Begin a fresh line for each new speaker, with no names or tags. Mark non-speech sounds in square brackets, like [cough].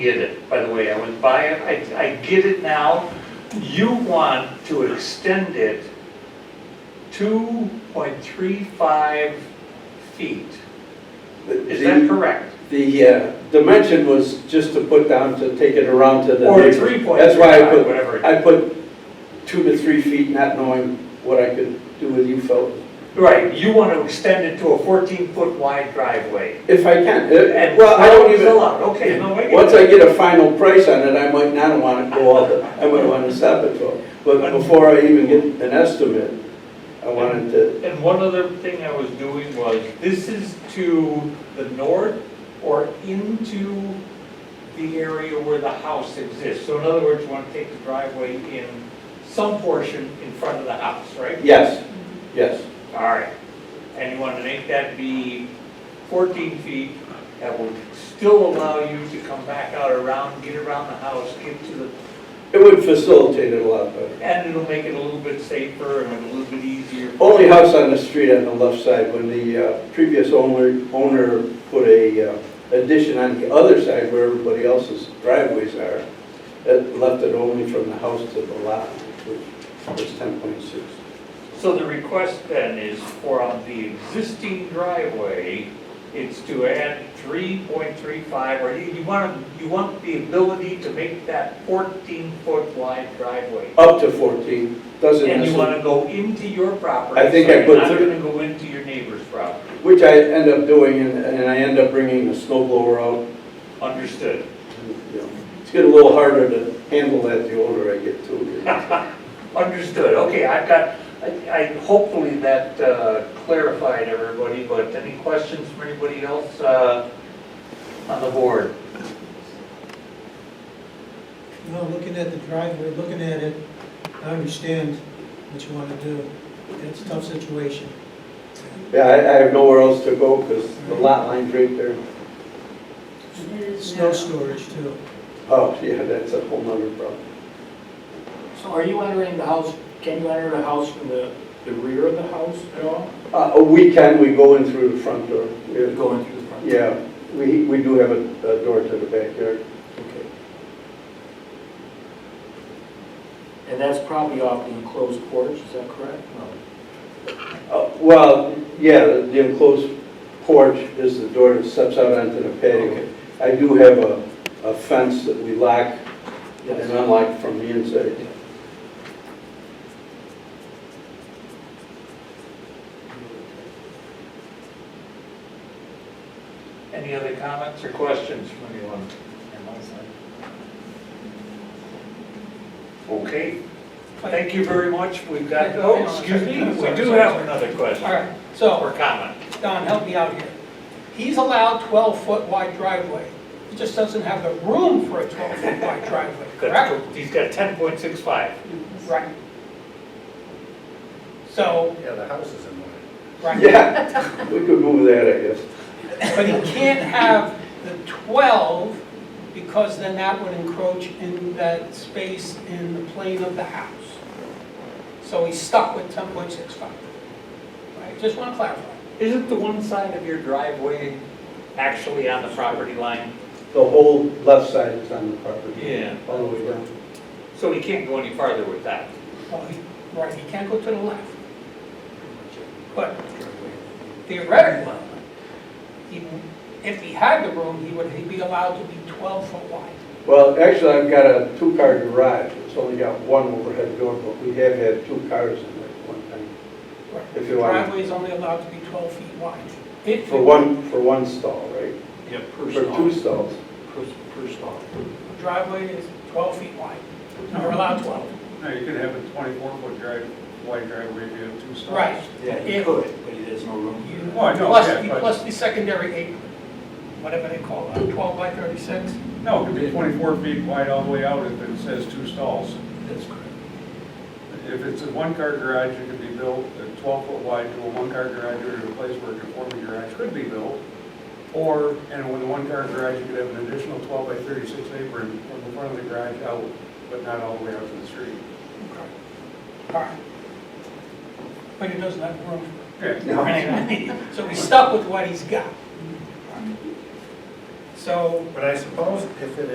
get it, by the way, I went by it, I, I get it now. You want to extend it two point three five feet, is that
The,
correct?
the uh, dimension was just to put down, to take it around to the
Or
neighbor.
three point
That's
three
why I
five,
put,
whatever.
I put two to three feet, not knowing what I could do with you fellows.
Right, you want to extend it to a fourteen foot wide driveway.
If I can, Uh,
And
well, I don't
twelve is
even,
allowed. Okay, no, I get
once
it.
I get a final price on it, I might not want to go all the, I might want to stop at twelve. But before I even get an estimate, I wanted to,
And one other thing I was doing was, this is to the north or into the area where the house exists. So in other words, you want to take the driveway in some portion in front of the house, right?
yes, yes,
All right. And you want to make that be 14 feet. That would still allow you to come back out around, get around the house, get to the
it would facilitate it a lot better.
And it'll make it a little bit safer and a little bit easier.
Only house on the street on the left side, when the uh, previous owner, owner put a uh, addition on the other side where everybody else's driveways are, it left it only from the house to the lot, which was ten point six.
So the request then is for on the existing driveway, it's to add 3.35, or you you want, you want the ability to make that 14-foot wide driveway.
Up to fourteen, doesn't
And you want
necessarily,
to go into your property.
I think I
So you're
put
not
thir-
going to go into your neighbor's property.
which I end up doing, and and I end up bringing the snow blower out.
Understood.
you know. It's getting a little harder to handle that the older I get too.
[laughs]
you know.
Understood, okay, I've got, I, I, hopefully that uh, clarified everybody, but any questions from anybody else uh, on the board?
No, looking at the driveway, looking at it, I understand what you want to do. It's a tough situation.
Yeah, I I have nowhere else to go because the lot line's right there.
Snow storage too.
Oh, yeah, that's a whole nother problem.
So are you entering the house, can you enter the house from the, the rear of the house at all?
Uh, we can, we go in through the front door. We-
Going through the front?
Yeah, we, we do have a, a door to the backyard.
Okay. And that's probably off the enclosed porch, is that correct? No.
Uh, well, yeah, the the enclosed porch is the door that steps out onto the patio. I do have a, a fence that we lock and
Yes.
unlock from the inside.
Any other comments or questions from anyone? Okay, thank you very much, we've got, oh, excuse me, we do have another question.
All right, so,
Or comment.
Don, help me out here. He's allowed 12-foot wide driveway. He just doesn't have the room for a 12-foot wide driveway, correct?
He's got ten point six five.
Right. So,
Yeah, the house is in the way.
right,
Yeah, we could move that, I guess.
but he can't have the 12 because then that would encroach in that space in the plane of the house. So he's stuck with 10.65. Right, just want to clarify.
Isn't the one side of your driveway actually on the property line?
The whole left side is on the property.
Yeah.
All the way down.
So he can't go any farther with that.
Well, he- Right, he can't go to the left. But theoretically, he- if he had the room, he would, he'd be allowed to be 12 foot wide.
Well, actually, I've got a two-car garage, it's only got one overhead door, but we have had two cars in there at one time. If you want.
Driveway is only allowed to be 12 feet wide. If
For one, for one stall, right?
Yeah,
For
per
two
stall.
stalls.
Per, per stall.
Driveway is 12 feet wide, or allowed 12.
No, you could have a twenty-four foot drive, wide driveway if you have two stalls.
Right.
Yeah, you
If-
could, but there's no room here.
Oh, I know,
Plus
yeah,
the-
but-
Plus the secondary apron, whatever they call it, 12 by 36.
No, it could be twenty-four feet wide all the way out if it says two stalls.
That's correct.
If it's a one-car garage, it could be built a twelve foot wide to a one-car garage or to a place where a conforming garage could be built. Or, and with a one-car garage, you could have an additional twelve by thirty-six apron from the front of the garage out, but not all the way out to the street.
All right. But he doesn't have room for
Yeah.
No.
[laughs] So we stuck with what he's got. So
But I suppose if it